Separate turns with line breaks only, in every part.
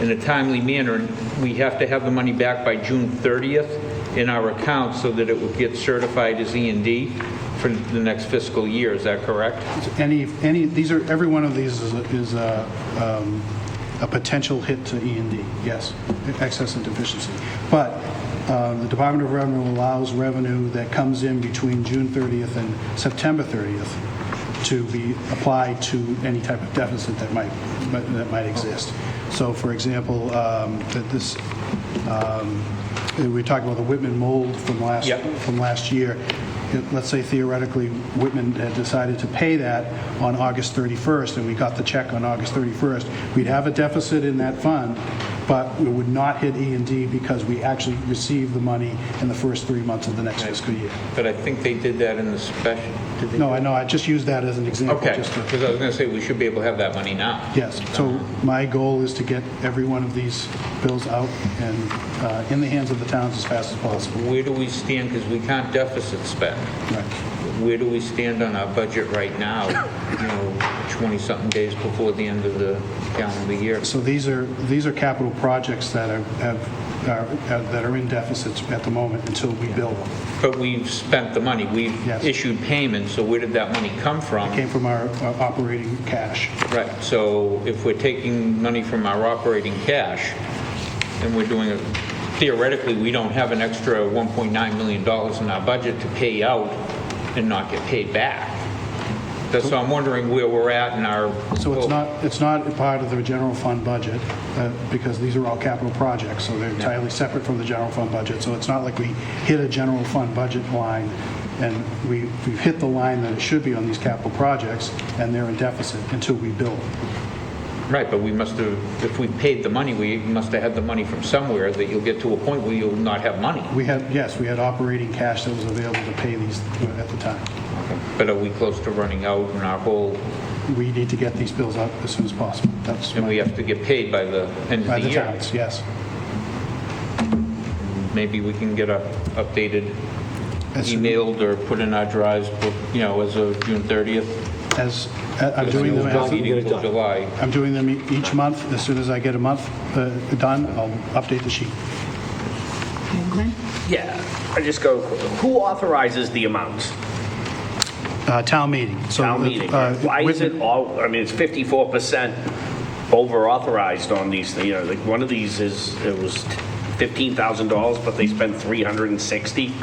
in a timely manner. And We have to have the money back by June 30th in our account so that it will get certified as E and D for the next fiscal year. Is that correct?
Any, any, these are, every one of these is, a- is a, um, a potential hit to E and D, yes, excess and deficiency. But uh, the Department of Revenue allows revenue that comes in between June 30th and September 30th to be applied to any type of deficit that might, that might exist. So for example, um, that this, um, we talked about the Whitman mold from last,
Yep.
from last year. It- Let's say theoretically, Whitman had decided to pay that on August 31st, and we got the check on August 31st. We'd have a deficit in that fund, but we would not hit E and D because we actually received the money in the first three months of the next fiscal year.
But I think they did that in the special. did they?
No, I know, I just used that as an example.
Okay,
just to-
because I was going to say, we should be able to have that money now.
Yes, so my goal is to get every one of these bills out and uh, in the hands of the towns as fast as possible.
Where do we stand? Because we can't deficit spend.
Right.
Where do we stand on our budget right now, you know, 20-something days before the end of the calendar year?
So these are, these are capital projects that are, have, are- are- that are in deficits at the moment until we build them.
But we've spent the money, we've
Yes.
issued payments, so where did that money come from?
Came from our our operating cash.
Right, so if we're taking money from our operating cash, and we're doing, it theoretically, we don't have an extra $1.9 million in our budget to pay out and not get paid back. That's, so I'm wondering where we're at in our...
So it's not, it's not a part of the general fund budget, uh, because these are all capital projects, so they're entirely separate from the general fund budget. So it's not like we hit a general fund budget line, and we, we've hit the line that it should be on these capital projects, and they're in deficit until we build.
Right, but we must have, if we paid the money, we must have had the money from somewhere, that you'll get to a point where you'll not have money.
We had, yes, we had operating cash that was available to pay these uh, at the time.
But are we close to running out in our whole,
we need to get these bills out as soon as possible. That's
and we
my,
have to get paid by the end
by
of the
the
year?
towns, yes.
maybe we can get a updated,
As soon-
emailed or put in our drives, you know, as of June 30th.
As, I- I'm doing them,
Not
as-
meeting till July.
I'm doing them e- each month. As soon as I get a month uh, done, I'll update the sheet.
Yeah, I just go, who authorizes the amounts?
Uh, Town meeting. So,
Town meeting.
uh,
Why is
Whitman-
it all, I mean, it's 54% over authorized on these, you know, like, one of these is, it was $15,000, but they spent 360.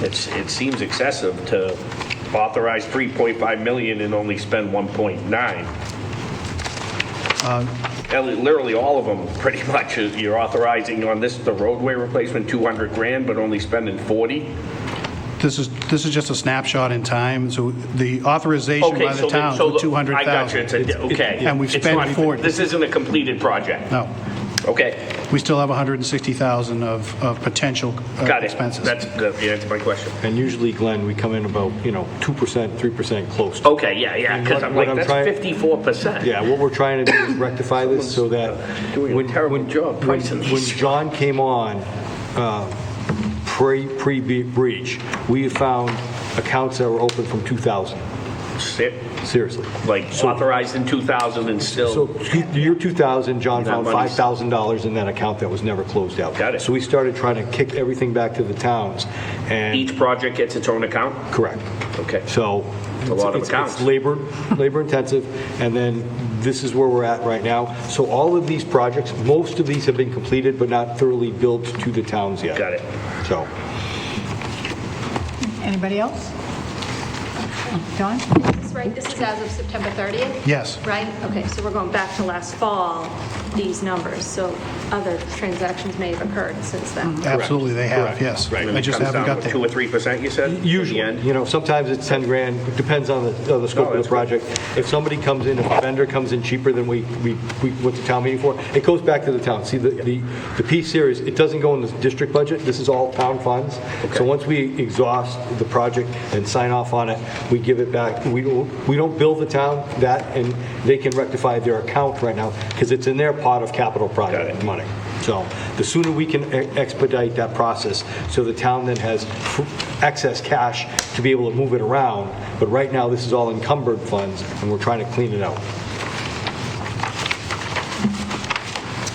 It's, it seems excessive to authorize 3.5 million and only spend 1.9.
Uh,
And Literally, all of them, pretty much, is- you're authorizing on this, the roadway replacement, 200 grand, but only spending 40.
This is, this is just a snapshot in time, so the authorization
Okay,
by the
so then-
town
so
for
the- I got you,
200,000.
it's a, okay.
And we've
It's
spent Uh,
not-
40.
This isn't a completed project,
No,
okay,
we still have 160,000 of, of potential uh,
got it.
expenses.
That's, that- yeah, that's my question.
And usually, Glenn, we come in about, you know, 2%, 3% close. to-
Okay, yeah, yeah,
And
because
what-
I'm
what
like,
I'm
that's
trying-
fifty-four percent.
Yeah, what we're trying to do is rectify this so that.
uh, Doing a
when-
terrible
when-
job
when-
pricing
When
these.
John came on, uh, pre, pre-breach, we found accounts that were open from 2000, seriously.
Like
So-
authorized in two thousand and
So
still,
the year 2000, John
Oh. That
found
money's-
$5,000 in that account that was never closed out.
Got it.
So we started trying to kick everything back to the towns and.
each project gets its own account?
Correct.
Okay.
So.
It's a lot of
it's-
accounts.
It's labor, labor intensive, and then this is where we're at right now. So all of these projects, most of these have been completed but not thoroughly built to the towns yet.
Got it.
So,
Anybody else? Don?
That's right, this is as of September 30th?
Yes.
Right? Okay, so we're going back to last fall, these numbers, so other transactions may have occurred since then.
Mm-hmm. Absolutely, they have,
Correct.
yes.
Right.
I just haven't got
Two
there.
or three percent, you said? in the
usually,
end?
you know, sometimes it's 10 grand, It depends on the, on the
No,
scope of
that's
the
good.
project. If somebody comes in, if a vendor comes in cheaper than we, we, we went to town meeting for, it goes back to the town. See, the, the, the piece here is, it doesn't go in the district budget, this is all town funds. So once we exhaust the project and sign off on it, we give it back. We, don't- we don't bill the town that, and they can rectify their account right now, because it's in their pot of capital project money. So the sooner we can e- expedite that process, so the town then has f- excess cash to be able to move it around, but right now, this is all encumbered funds, and we're trying to clean it out.